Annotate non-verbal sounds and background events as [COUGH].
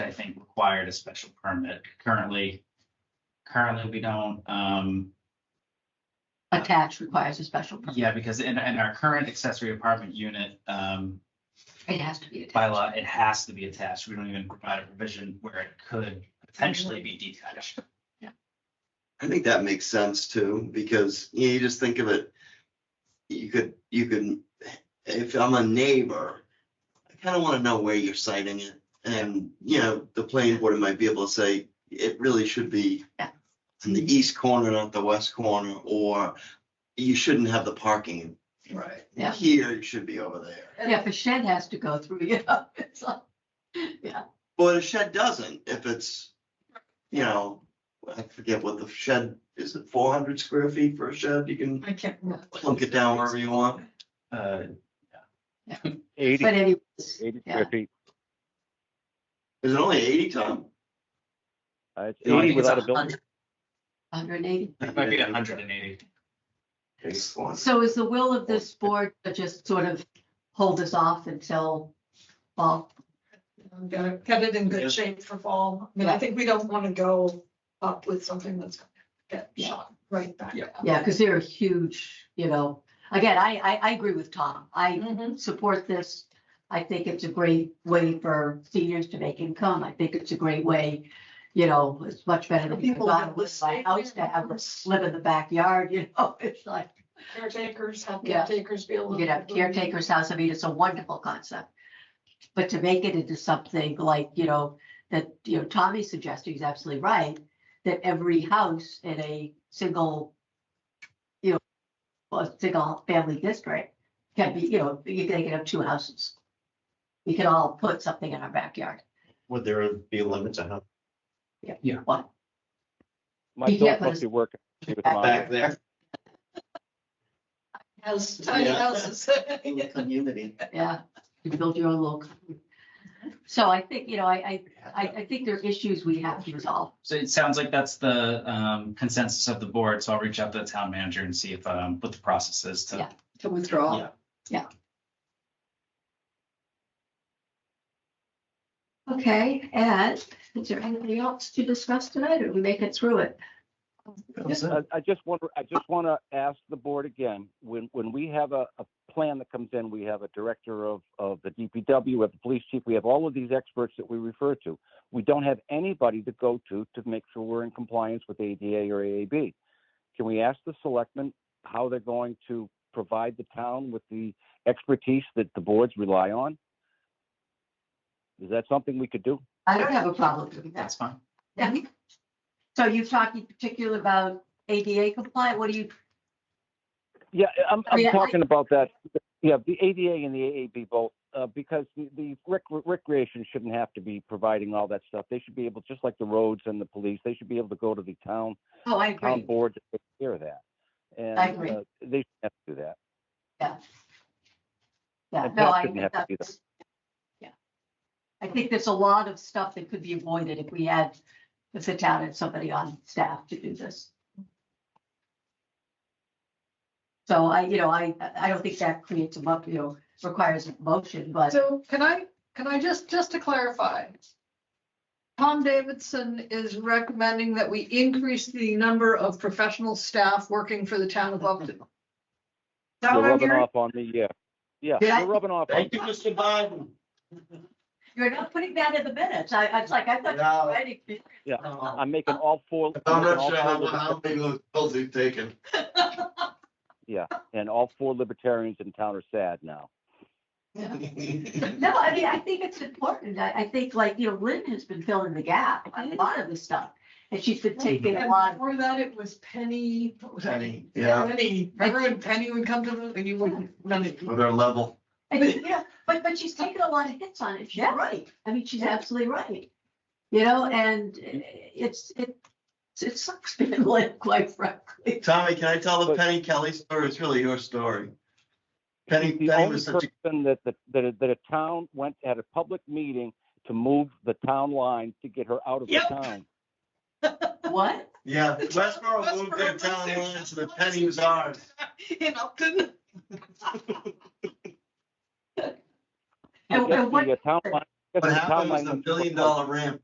required a special permit currently. Currently, we don't, um, Attached requires a special permit. yeah, because in, in our current accessory apartment unit, um, It has to be attached. bylaw, it has to be attached. We don't even provide a provision where it could potentially be detached. I think that makes sense too, because you, know, you just think of it. You could, you could, if I'm a neighbor, I kind of want to know where you're citing it. And, you know, the planning board might be able to say, it really should be Yeah. in the east corner, not the west corner, or you shouldn't have the parking. Right. Yeah. Here, you should be over there. Yeah, if a shed has to go through, [LAUGHS] you know, it's like, yeah, But a shed doesn't, if it's, you know, I forget what the shed, is it four hundred square feet for a shed? You can I can't remember. plunk it down wherever you want. Uh, Eighty, but anyway, eighty yeah. square feet. Is it only eighty, Tom? Uh, it's No, I eighty think it's without a building. hundred and eighty. it might be hundred and eighty. So is the will of this board to just sort of hold us off until fall? I'm gonna Get it in Yeah. good shape for fall. I mean, I think we don't want to go up with something that's gonna get Yeah. shot right back. Yeah. down. Yeah, because they're a huge, you know, again, I, I, I agree with Tom. I Mhm. Mm-hmm. support this. I think it's a great way for seniors to make income. I think it's a great way, you know, it's much better to be People that gone with my live house to have a slip in the backyard, you know, [LAUGHS] it's like, Caretakers, have Yeah. caretakers be able. you know, to- caretaker's house, I mean, it's a wonderful concept. But to make it into something like, you know, that, you know, Tommy's suggesting is absolutely right, that every house in a single, you know, well, a single family district can be, you know, you can they can have two houses. We can all put something in our backyard. Would there be limits on how One, My You can't dog put must a- be working. with Back mine. back there? Has tiny Yeah. [LAUGHS] houses. In the community. yeah, you build your own little. commune. So I think, you know, I, I, I, I think there are issues we have to resolve. So it sounds like that's the, um, consensus of the board. So I'll reach out to the town manager and see if, um, what the process is to. Yeah. To withdraw. Yeah. Okay, and is there anything else to discuss tonight, or we make it through it? I, I just want, I just want to ask the board again, when, when we have a, a plan that comes in, we have a director of, of the DPW, we have the police chief, we have all of these experts that we refer to. We don't have anybody to go to to make sure we're in compliance with ADA or AAB. Can we ask the selectmen how they're going to provide the town with the expertise that the boards rely on? Is that something we could do? I don't have a problem with that. That's fine. Yeah. So you're talking particularly about ADA compliant, what do you, Yeah, I'm, I I'm mean, I- talking about that, yeah, the ADA and the AAB both, uh, because the, the rec- recreation shouldn't have to be providing all that stuff. They should be able, just like the roads and the police, they should be able to go to the town, oh, I town agree, board to take care of that. And, I agree. uh, they shouldn't have to do that. yeah. Yeah, And no, that I shouldn't think have to be that's. Yeah. I think there's a lot of stuff that could be avoided if we had, if the town had somebody on staff to do this. So I, you know, I, I don't think that creates a, mo- you know, requires a motion, but. So can I, can I just, just to clarify? Tom Davidson is recommending that we increase the number of professional staff working for the town of Upton. Is that They're what I'm rubbing hearing? off on me, yeah. Yeah, Did I- they're rubbing off on, Thank you, Mr. Biden. You're not putting that in the minutes. I, I was like, I thought. you No. were writing it. yeah, I'm I'm making all four. I'm making not sure all four how, liber- how big those pills he's taken. And all four libertarians in town are sad now. No, I mean, I think it's important. I, I think like, you know, Lynn has been filling the gap on a lot of this stuff. And she's been taking a And lot. Before that, it was Penny. what was that? Penny, yeah. Penny, remember when Penny would come to the, and you wouldn't, none of you. With our level. and, Yeah, but, but she's taken a lot of hits on it. She's Yeah. right. I mean, she's Yeah. absolutely right. You know, and it's, it, it sucks [LAUGHS] being Lynn, quite frankly. Tommy, can I tell the But- Penny Kelly story? It's really your story. He's Penny, the Penny only was such a, person that, that, that a- that a town went, had a public meeting to move the town line to get her out of the Yep. town. What? yeah, Westboro moved their town line, so the Penny was ours. [LAUGHS] In Upton. And- Yes, and what- The uh, town line, yes, What the uh, town happened was line a went- billion dollar ramp